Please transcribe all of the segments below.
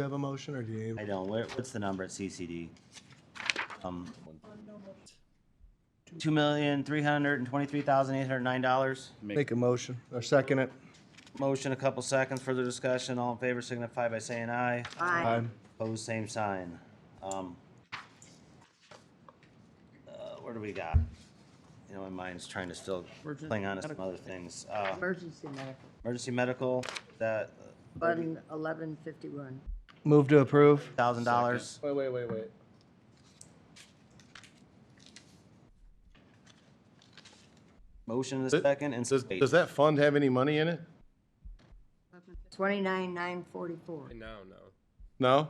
you have a motion or do you? I don't, Where- what's the number at CCD? Um, Two million, three hundred and twenty-three thousand, eight hundred and nine dollars. Make a motion or second it. Motion, a couple seconds, further discussion, all in favor signify by saying aye. Aye. Aye. Pose same sign. Um, uh, What do we got? You know, my mind's trying to still cling on to some other things. Uh, Emergency medical, Emergency medical, that fund eleven fifty-one. Move to approve. thousand dollars. Wait, wait, wait, wait. Motion is second and. Does, debate. does that fund have any money in it? Twenty-nine, nine forty-four. No, no. No?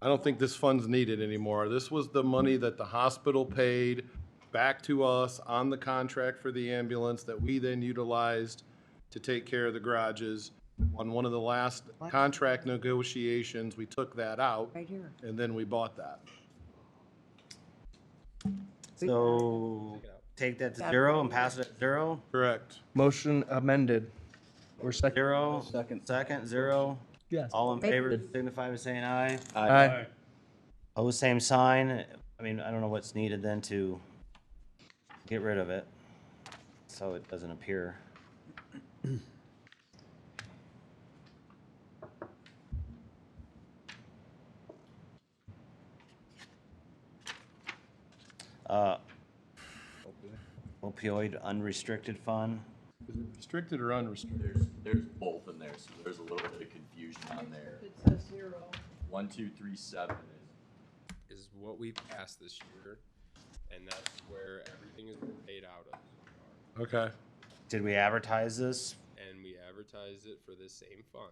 I don't think this fund's needed anymore. This was the money that the hospital paid back to us on the contract for the ambulance that we then utilized to take care of the garages. On one of the last contract negotiations, we took that out right here. and then we bought that. So take that to zero and pass it at zero, Correct. Motion amended. Or second. zero, second, zero. Yes. All in favor signify by saying aye. Aye. Oh, same sign. I mean, I don't know what's needed then to get rid of it. So it doesn't appear. Uh, Opioid unrestricted fund. Is it restricted or unrestricted? There's both in there, so there's a little bit of confusion on there. It says zero. One, two, three, seven is, Is what we passed this year, and that's where everything is paid out of. Okay. Did we advertise this? And we advertised it for the same fund.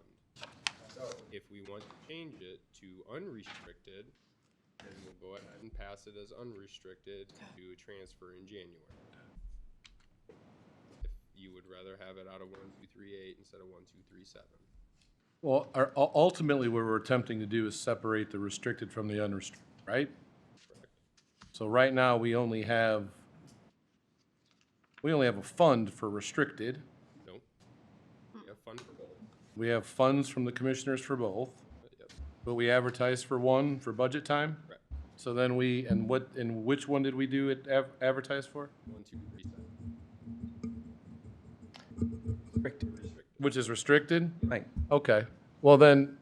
So if we want to change it to unrestricted, then we'll go ahead and pass it as unrestricted to do a transfer in January. If you would rather have it out of one, two, three, eight instead of one, two, three, seven. Well, our- u- ultimately, what we're attempting to do is separate the restricted from the unrestricted, right? So right now, we only have, we only have a fund for restricted. Nope. We have fund for both. We have funds from the commissioners for both, But yep, but we advertise for one for budget time. correct. So then we, and what, and which one did we do it av- advertise for? One, two, three, seven. Which is restricted? Right. Okay, well then,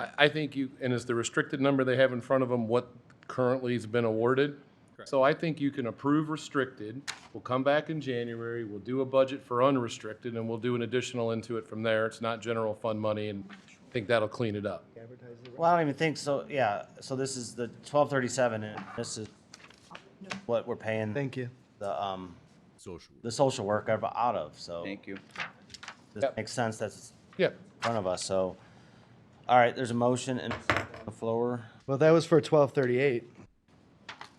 I, I think you, and is the restricted number they have in front of them what currently has been awarded? So I think you can approve restricted, we'll come back in January, we'll do a budget for unrestricted, and we'll do an additional into it from there. It's not general fund money, and I think that'll clean it up. Well, I don't even think so. Yeah, so this is the twelve thirty-seven and this is what we're paying. Thank you. the, um, Social. The social work I've out of, so. Thank you. This Yep. makes sense, that's Yeah, in front of us, so. All right, there's a motion and a second on the floor. Well, that was for twelve thirty-eight.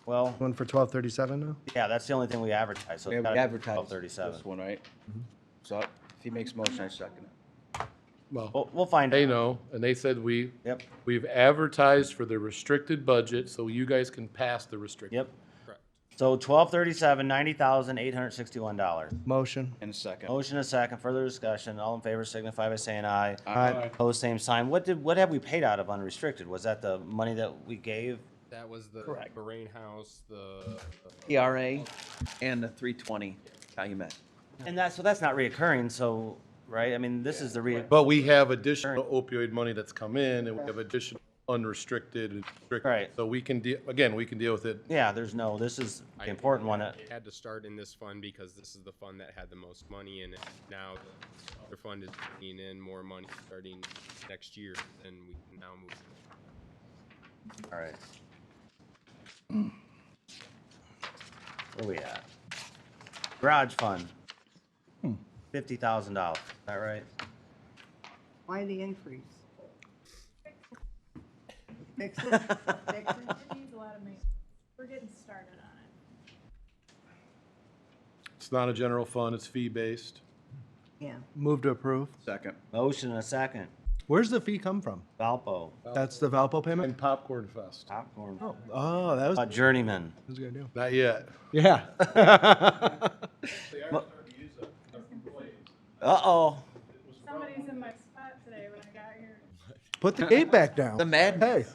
Well, One for twelve thirty-seven now? yeah, that's the only thing we advertise, so. We Mm-hmm. advertised this 1237. one, right? So if he makes motion, I second it. well, We'll, we'll find. they out. know, and they said we, Oh. Yep, we've advertised for the restricted budget, so you guys can pass the restricted. yep. Correct. So twelve thirty-seven, ninety thousand, eight hundred sixty-one dollars. Motion. And a second. Motion and a second, further discussion, all in favor signify by saying aye. Aye. Opposed, same sign. What did, what have we paid out of unrestricted? Was that the money that we gave? That was the Moraine House, the. ERA and the three twenty Calumet. And that's, so that's not reoccurring, so, right? I mean, this is the re, But we have additional opioid money that's come in, and we have additional unrestricted and restricted. Right. So we can deal, again, we can deal with it. Yeah, there's no, this is the important one. that- It had to start in this fund because this is the fund that had the most money in it. Now the other fund is bringing in more money starting next year and we can now move. All right. Where we at? Garage fund. Fifty thousand dollars, is that right? Why the increase? Fix it, fix it. It needs a lot of maintenance. We're getting started on it. It's not a general fund, it's fee-based. Yeah. Move to approve. Second. Motion and a second. Where's the fee come from? Valpo, That's the Valpo And payment? Popcorn Fest. popcorn, Oh, that was, Uh, that journeyman. was a good deal. Not yet. Yeah. Uh-oh. Somebody's in my spot today when I got here. Put the gate back down. The Madden. Hey.